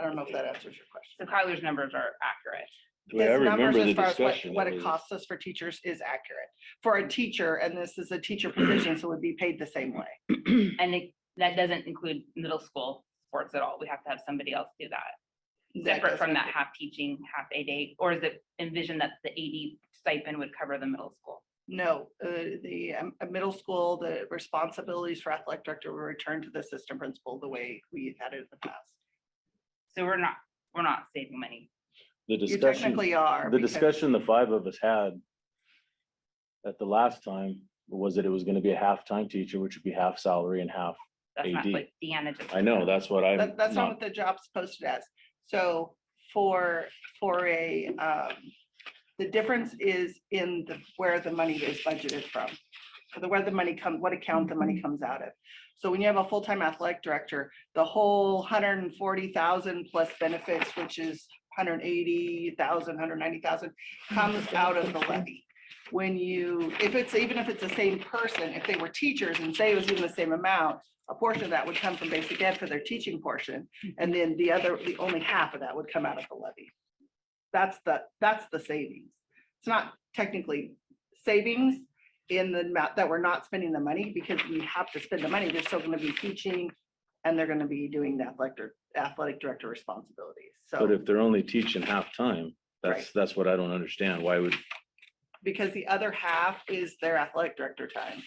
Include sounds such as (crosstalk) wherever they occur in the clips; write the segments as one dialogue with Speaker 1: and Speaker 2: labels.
Speaker 1: I don't know if that answers your question.
Speaker 2: So Kyler's numbers are accurate.
Speaker 3: The way I
Speaker 1: His numbers
Speaker 3: remember the
Speaker 1: as far as what-
Speaker 3: discussion.
Speaker 1: What it
Speaker 3: was-
Speaker 1: costs us for teachers is accurate. For a teacher, and this is a teacher
Speaker 3: (clears throat)
Speaker 1: position, so it would be paid the same way.
Speaker 2: And it- that doesn't include middle school sports at all. We have to have somebody else do that. Separate from that half teaching, half aid aid, or is it envisioned that the AD stipend would cover the middle school?
Speaker 1: No, uh, the um, uh, middle school, the responsibilities for athletic director were returned to the assistant principal the way we had it in the past.
Speaker 2: So we're not, we're not saving money.
Speaker 3: The
Speaker 1: You
Speaker 3: discussion,
Speaker 1: technically are.
Speaker 3: the
Speaker 1: because-
Speaker 3: discussion the five of us had at the last time was that it was gonna be a half-time teacher, which would be half salary and half.
Speaker 2: That's not
Speaker 3: AD.
Speaker 2: what Deanna just.
Speaker 3: I know, that's what I'm
Speaker 1: That, that's not
Speaker 3: not,
Speaker 1: what the job's posted as. So for, for a, um, the difference is in the, where the money is budgeted from. For the, where the money comes, what account the money comes out of. So when you have a full-time athletic director, the whole hundred and forty thousand plus benefits, which is 180,000, 190,000, comes out of the levy. When you, if it's, even if it's the same person, if they were teachers and say it was even the same amount, a portion of that would come from basic ed for their teaching portion, and then the other, the only half of that would come out of the levy. That's the, that's the savings. It's not technically savings in the amount that we're not spending the money, because we have to spend the money, they're still gonna be teaching, and they're gonna be doing the athletic, dir- athletic director responsibilities,
Speaker 3: but
Speaker 1: so,
Speaker 3: if they're only teaching half-time, that's,
Speaker 1: Right.
Speaker 3: that's what I don't understand. Why would,
Speaker 1: because the other half is their athletic director time.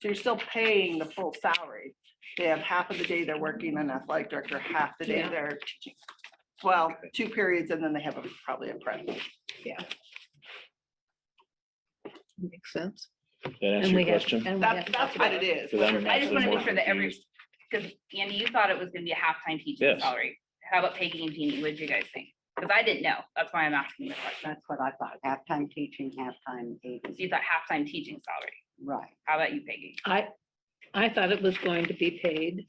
Speaker 1: So you're still paying the full salary. They have half of the day they're working an athletic director, half the day
Speaker 2: Yeah.
Speaker 1: they're teaching. Well, two periods and then they have a- probably a prep.
Speaker 4: Makes sense.
Speaker 3: that answer
Speaker 4: And
Speaker 3: your
Speaker 4: we have-
Speaker 3: question?
Speaker 4: and we
Speaker 1: That's,
Speaker 4: have-
Speaker 1: that's what it is.
Speaker 3: Because I'm
Speaker 2: I just
Speaker 3: actually
Speaker 2: wanna
Speaker 3: more
Speaker 2: make sure that every-
Speaker 3: confused.
Speaker 2: Because Andy, you thought it was gonna be a half-time teacher
Speaker 3: Yes.
Speaker 2: salary. How about Peggy and Jeannie? What did you guys think? Because I didn't know. That's why I'm asking the question.
Speaker 5: That's what I thought, halftime teaching, halftime
Speaker 2: So
Speaker 5: aid,
Speaker 2: you thought half-time teaching salary.
Speaker 5: right.
Speaker 2: How about you, Peggy?
Speaker 4: I, I thought it was going to be paid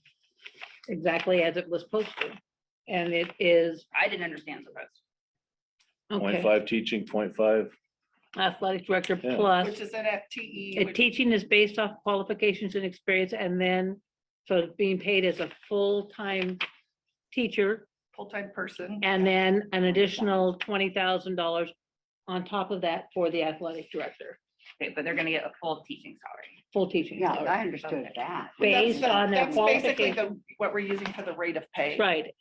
Speaker 4: exactly as it was posted. And it is,
Speaker 2: I didn't understand the post.
Speaker 3: Point
Speaker 4: okay,
Speaker 3: five teaching, point five.
Speaker 4: athletic director
Speaker 3: Yeah.
Speaker 1: Which
Speaker 4: plus,
Speaker 1: is an FTE.
Speaker 4: uh,
Speaker 1: which-
Speaker 4: teaching is based off qualifications and experience and then, so it's being paid as a full-time teacher
Speaker 1: full-time person.
Speaker 4: and then an additional twenty thousand dollars on top of that for the athletic director,
Speaker 2: Okay, but they're gonna get a full teaching salary.
Speaker 4: full teaching.
Speaker 5: Yeah,
Speaker 4: salary.
Speaker 5: I understood that.
Speaker 1: That's
Speaker 4: Based
Speaker 1: the-
Speaker 4: on their
Speaker 1: That's basically the, what we're using for the rate of pay.
Speaker 4: Right,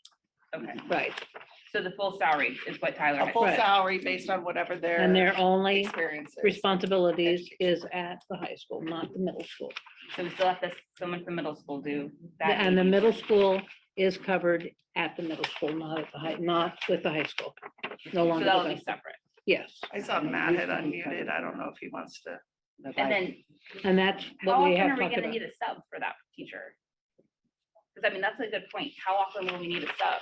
Speaker 2: Okay,
Speaker 4: right.
Speaker 2: so the full salary is what Tyler
Speaker 1: A
Speaker 2: had.
Speaker 1: full
Speaker 4: Right.
Speaker 1: salary based on whatever their.
Speaker 4: And their only
Speaker 1: Experience. is.
Speaker 4: responsibilities is
Speaker 1: Education.
Speaker 4: at the high school, not the middle school.
Speaker 2: So we still have to, someone from middle school do that.
Speaker 4: And the
Speaker 2: AD.
Speaker 4: middle school is covered at the middle school, not at the high, not with the high school. No
Speaker 2: So
Speaker 4: longer, with
Speaker 2: that'll be
Speaker 4: us.
Speaker 2: separate.
Speaker 4: yes.
Speaker 1: I saw Matt had unmuted. I don't know if he wants to.
Speaker 5: But
Speaker 2: And
Speaker 5: I-
Speaker 2: then
Speaker 4: And that's
Speaker 2: how
Speaker 4: what we
Speaker 2: often
Speaker 4: have
Speaker 2: are we
Speaker 4: talked
Speaker 2: gonna
Speaker 4: about.
Speaker 2: need a sub for that teacher? Because I mean, that's a good point. How often will we need a sub?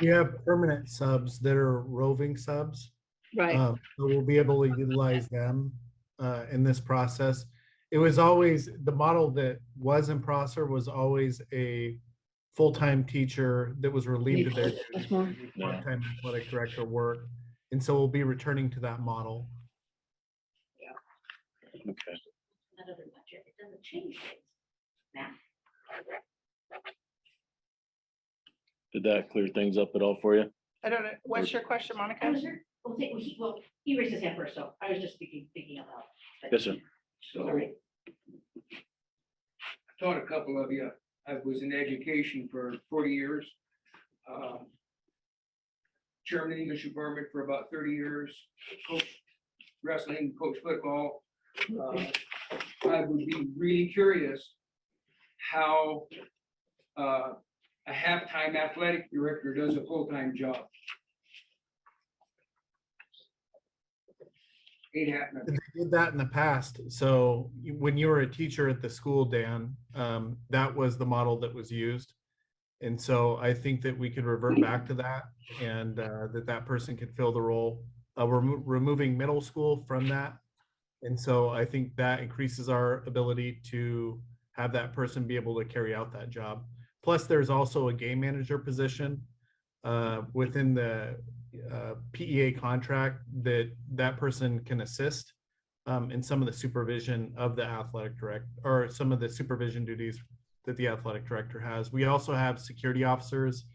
Speaker 6: You have permanent subs that are roving subs.
Speaker 4: Right,
Speaker 6: um, so We'll be able to utilize them uh, in this process. It was always, the model that was in Prosser was always a full-time teacher that was relieved of their
Speaker 4: that's more.
Speaker 3: Yeah.
Speaker 6: part-time athletic director work. And so we'll be returning to that model.
Speaker 3: Okay.
Speaker 2: Not every budget, it doesn't change things.
Speaker 3: Did that clear things up at all for you?
Speaker 1: I don't know. What's your question,
Speaker 7: I
Speaker 1: Monica?
Speaker 7: was, well, he- well, he, well, he raised his hand first, so I was just thinking, thinking out loud. but-
Speaker 3: Yes, sir.
Speaker 7: All right.
Speaker 8: I taught a couple of you. I was in education for forty years. Um, Chairman of English Department for about thirty years, coached wrestling, coached football. Uh, I would be really curious how uh, a halftime athletic director does a full-time job. Ain't happening.
Speaker 6: And They did that in the past. So you- when you were a teacher at the school, Dan, um, that was the model that was used. And so I think that we could revert back to that and uh, that that person could fill the role. Uh, We're remo- removing middle school from that. And so I think that increases our ability to have that person be able to carry out that job. Plus, there's also a game manager position uh, within the uh, PEA contract that that person can assist um, in some of the supervision of the athletic direct, or some of the supervision duties that the athletic director has. We also have security officers